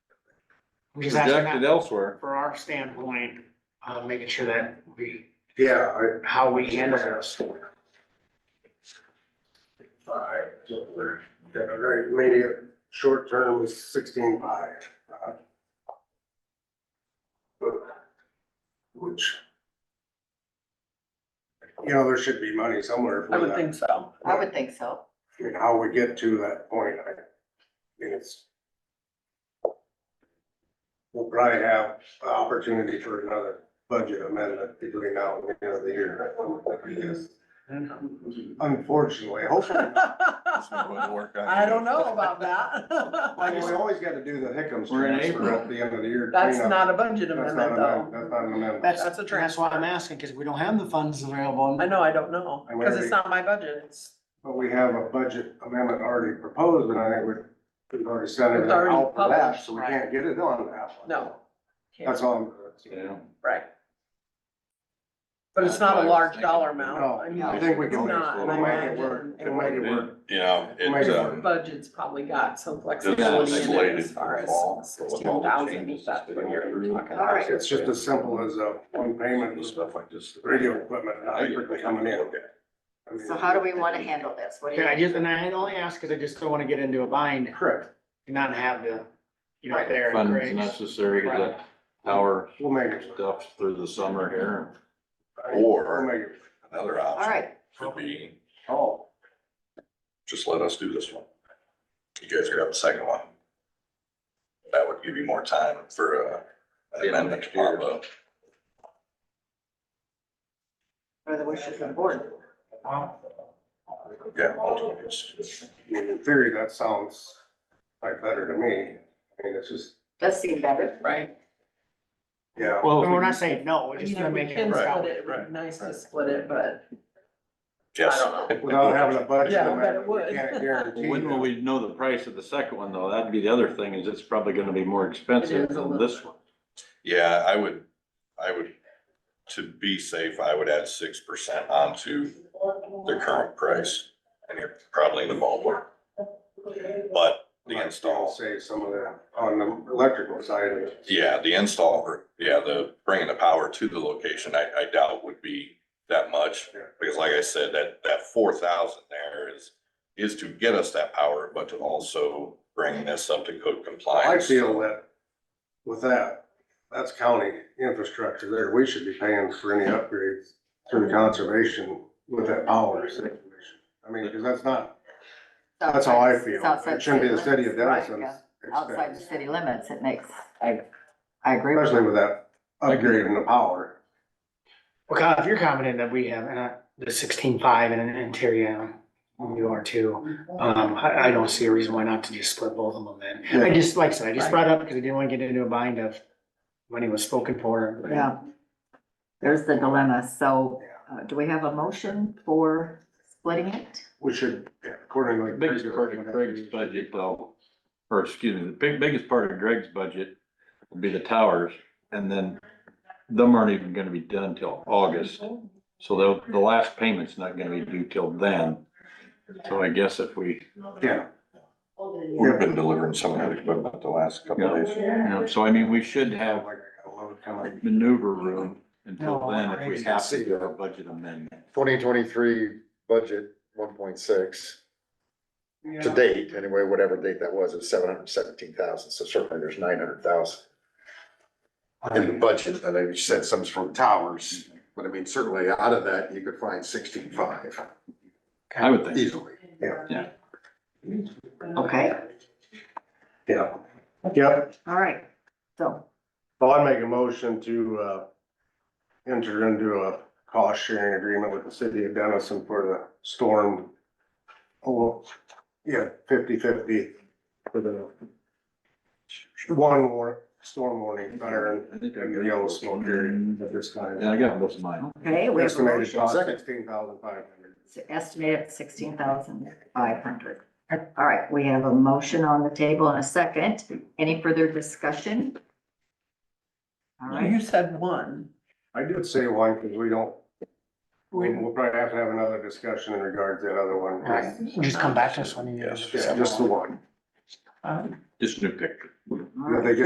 I'm just asking projected that elsewhere. for our standpoint, uh, making sure that we, Yeah, I, how we handle it. Five, yeah, right, maybe short term was sixteen five. Which. You know, there should be money somewhere I for would that, think so. I would think so. I mean, how we get to that point, I, I mean, it's. We'll probably have opportunity for another budget amendment between now and the end of the year, I guess. Unfortunately, hopefully not. I don't know about that. Well, we always gotta do the Hickams We're in transfer April. at the end of the year. That's cleanup. not a budget That's not amendment though. That's not an amendment. That's, That's a that's why I'm asking, because we don't have the funds available. I know, I don't know, I because wonder- it's not my budget. It's, But we have a budget amendment already proposed, and I think we've, we've already sent it It's already out for that, published, so we right. can't get it on that one. no. can't, That's all. I'm- Yeah. Right. But it's That's not what I a was large thinking. dollar amount. No, mean, I think we it's can make not, it I we'll make it work, imagine. we'll make it work. You know, We'll make it's, it uh, work. Budget's probably got some it's flexibility in it slated as far for as fall. so with all sixteen the thousand, changes if that's that what go you're through, talking All about. right. It's just as simple as a one payment, and Stuff like this. radio equipment, not strictly coming in. I mean- So how do we want to handle this? What do you? And I just, and I only ask because I just don't want to get into a bind Correct, and not have the, you know, there. and Funds grace. necessary, Right. the power we'll make it. work. stuff through the summer here. We'll Or make it. another All option right, would be, Oh, just let us do this one. You guys grab the second one. That would give you more time for uh, an Yeah, amendment to next year. pop up. or the wishes of the board. Yeah, ultimately, it's- I mean, in theory, that sounds like better to me. I mean, it's just, Does seem better. Right. yeah. Well, And we're not saying no, we're just You gonna know, we make it. can work split out. it, it'd Right, be nice to right. split it, but Yes. I don't Without having a budget. Yeah, I bet it we would. can't guarantee When will that. we know the price of the second one though? That'd be the other thing is it's probably gonna be more It expensive is a than little this one. Yeah, I would, I would, to be safe, I would add six percent onto the current price. And you're probably in the ballpark. But the install, Save some of that on the electrical side of it. yeah, the install, or, yeah, the bringing the power to the location, I, I doubt would be that much. Yeah. Because like I said, that, that four thousand there is, is to get us that power, but to also bring this up to code I compliance. feel that with that, that's county infrastructure there. We should be paying for any upgrades through conservation with that power situation. I mean, because that's not, that's how I feel. Outside It shouldn't be the city of limits. Denison. Right, yeah. Outside the city limits, it makes, I, I agree. with Especially with that upgrade in the power. Well, Kyle, if you're confident that we have, uh, the sixteen five and an interior, you are too, um, I, I don't see a reason why not to just split both of them then. I Yeah. just, like I said, I just Right. brought it up because I didn't want to get into a bind of money was spoken for. you. Yeah. There's the dilemma. So uh, do we have a motion for splitting it? We should accordingly. Biggest part of Greg's budget though, or excuse me, the big, biggest part of Greg's budget would be the towers. And then them aren't even gonna be done till August. So the, the last payment's not gonna be due till then. So I guess if we, Yeah, We've been delivering some of that equipment the last couple of days. you know, so I mean, we should have like I got a load coming. maneuver room until No, then if we Greg's have to gonna do see a budget amendment. twenty twenty-three budget, one point six, to Yeah. date, anyway, whatever date that was, it's seven hundred seventeen thousand, so certainly there's nine hundred thousand in the budget, and I you said some's from towers, but I mean, certainly out of that, you could find sixteen-five I would think. easily. Okay, Yeah, yeah, all right. So, well, I make a motion to, uh, enter into a cost sharing agreement with the city of Denison for the storm. Oh, yeah, fifty fifty for the one war, storm warning, fire I think I and the agree. yellow smoke area at this time. Yeah, I got most of mine. okay, we have a Estimated motion cost Second. sixteen thousand five hundred. estimated sixteen thousand five hundred. All right, we have a motion on the table and a second. Any further discussion? All know. right, You said one. I did say one, because we don't, We- we'll we'll probably have to have another discussion in regards to that other one. Right. Just come back to us when you. Yes. Yeah, just the one. Um, Just new picture. all If right. they get